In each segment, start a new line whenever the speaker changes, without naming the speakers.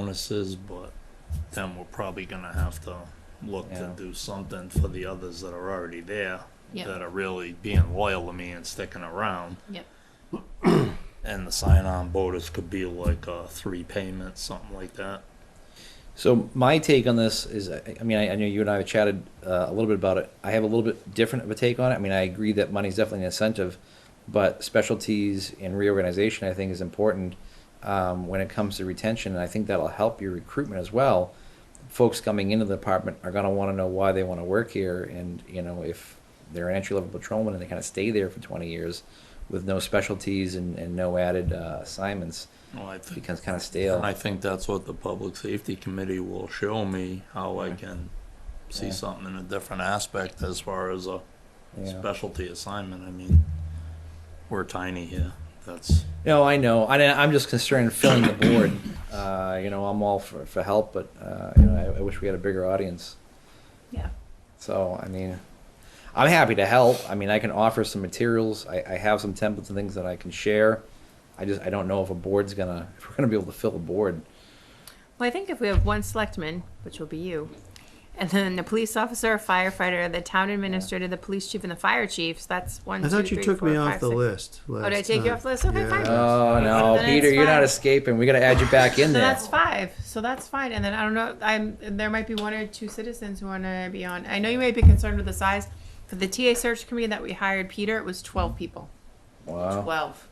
bonuses, but then we're probably gonna have to look to
Yeah.
do something for the others that are already there.
Yep.
That are really being loyal to me and sticking around.
Yep.
And the sign-on bonus could be like, uh, three payments, something like that.
So my take on this is, I I mean, I, I know you and I have chatted uh, a little bit about it. I have a little bit different of a take on it. I mean, I agree that money's definitely an incentive, but specialties and reorganization, I think, is important um, when it comes to retention. And I think that'll help your recruitment as well. Folks coming into the department are going to want to know why they want to work here, and you know, if they're an entry level patrolman and they kind of stay there for 20 years with no specialties and, and no added uh, assignments,
Well, I
it
think
becomes kind of stale.
And I think that's what the public safety committee will show me, how I
Yeah.
can see
Yeah.
something in a different aspect as far as a
Yeah.
specialty assignment. I mean, we're tiny here. That's,
No, I know. I, I'm just concerned filling the board. Uh, you know, I'm all for, for help, but uh, you know, I, I wish we had a bigger audience.
Yeah.
So, I mean, I'm happy to help. I mean, I can offer some materials. I, I have some templates and things that I can share. I just I don't know if a board's gonna if we're gonna be able to fill a board.
Well, I think if we have one selectman, which will be you, and then the police officer, firefighter, the town administrator, the police chief, and the fire chiefs, that's one,
I
two,
thought you
three,
took
four,
me off
five,
the
six. Oh,
list.
did I
last
take you
time.
off the list? Okay, fine.
Oh no,
Then
Peter,
it's
you're not
fine.
escaping. We gotta add you back in
So
there.
that's five. So that's fine. And then I don't know. I'm there might be one or two citizens who want to be on. I know you may be concerned with the size. For the TA search committee that we hired Peter, it was twelve people.
wow.
Twelve.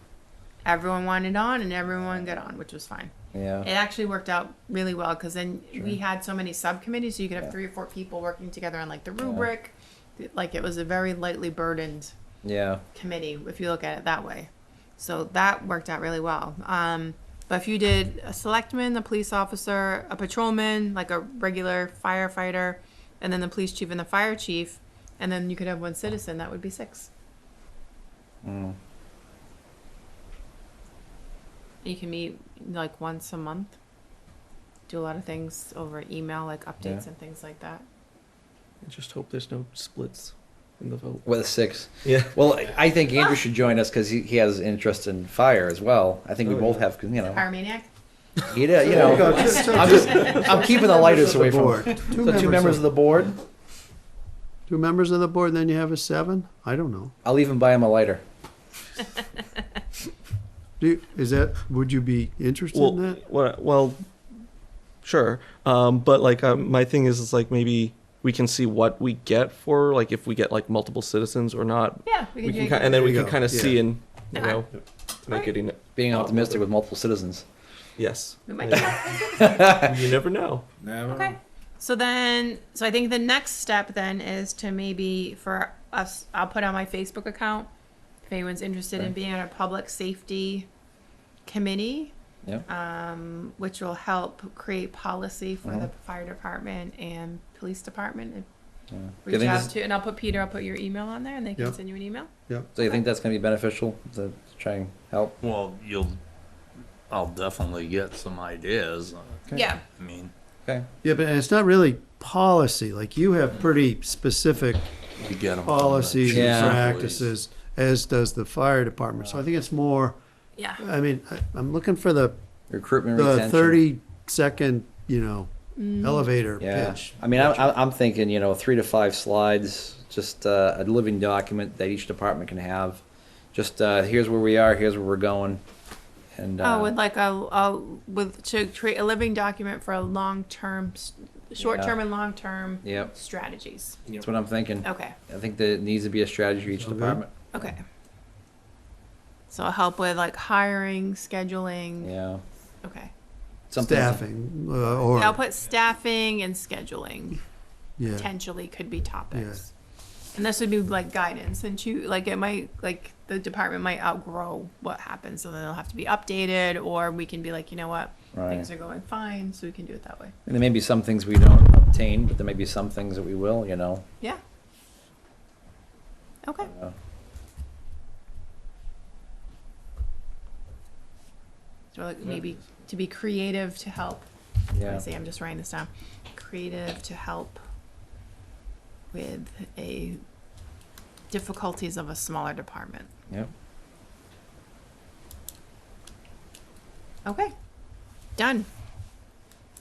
Everyone wanted on, and everyone got on, which was fine. It
Yeah.
actually worked out really well because then we
Sure.
had so many subcommittees, so you could have
Yeah.
three or four people working together on like the rubric. It- Like it was a very lightly burdened
Yeah.
committee if you look at it that way. So that worked out really well. Um, but if you did a selectman, a police officer, a patrolman, like a regular firefighter, and then the police chief and the fire chief, and then you could have one citizen, that would be six.
Mm.
You can meet like once a month, do a lot of things over email, like updates
Yeah.
and things like that.
I just hope there's no splits in the vote.
With a six.
Yeah.
Well, I think Andrew should join us because he, he has interest in fire as well. I think we
Oh,
both
yeah.
have, 'cause, you know,
Power maniac?
he did, uh, you know.
Go, just-
I'm just, I'm keeping the lighters away from.
board.
So
Two
two members of the board.
Two members of the board, then you have a seven? I don't know.
I'll even buy him a lighter.
Do you, is that, would you be interested
Well,
in that?
what, well, sure. Um, but like uh, my thing is, is like maybe we can see what we get for like if we get like multiple citizens or not.
Yeah, we
We
can do it.
can
Uh-huh.
ki- and then we
There you
can
go.
kind of
Yeah.
see and you know make
Alright.
it in.
Being optimistic with multiple citizens.
Yes.
We might get
you never know.
Okay. So then, so I think the next step then is to maybe for us, I'll put on my Facebook account if anyone's interested in being on a public safety committee,
Yeah.
um, which will help create policy for the fire department and police department. And
Do you
Reach
think
out
this-
to, and I'll put Peter, I'll put your email on there and they can
Yeah.
send you an email.
So you think that's going to be beneficial to try and help?
well, you'll, I'll definitely get some ideas.
Yeah.
I mean,
Okay.
Yeah, but it's not really policy, like you have pretty specific
you get 'em from the
policies
chief
and
Yeah.
of police.
practices, as does the fire department, so I think it's more,
Yeah.
I mean, I, I'm looking for the,
Recruitment,
the
retention.
thirty second, you know,
Mm.
elevator
Yeah.
pitch.
I mean, I, I- I'm thinking, you know, three to five slides, just uh, a living document that each department can have. Just uh, here's where we are, here's where we're going. And uh,
Oh, with like a, a with to create a living document for a long term, short term and long term
Yep.
strategies.
That's what I'm thinking.
Okay.
I think there needs to be a strategy for each
Okay.
department.
Okay. So it'll help with like hiring, scheduling.
Yeah.
Okay.
Something-
Staffing, uh, or,
I'll put staffing and scheduling
yeah,
potentially could be topics. And this would be like guidance and you like it might like the department might outgrow what happens so then it'll have to be updated or we can be like, you know what,
Right.
things are going fine, so we can do it that way.
And there may be some things we don't obtain, but there may be some things that we will, you know.
Yeah. Okay.
Uh,
So like maybe to be creative to help I
Yeah.
see. I'm just writing this down. Creative to help with a difficulties of a smaller department.
Yep.
Okay, done.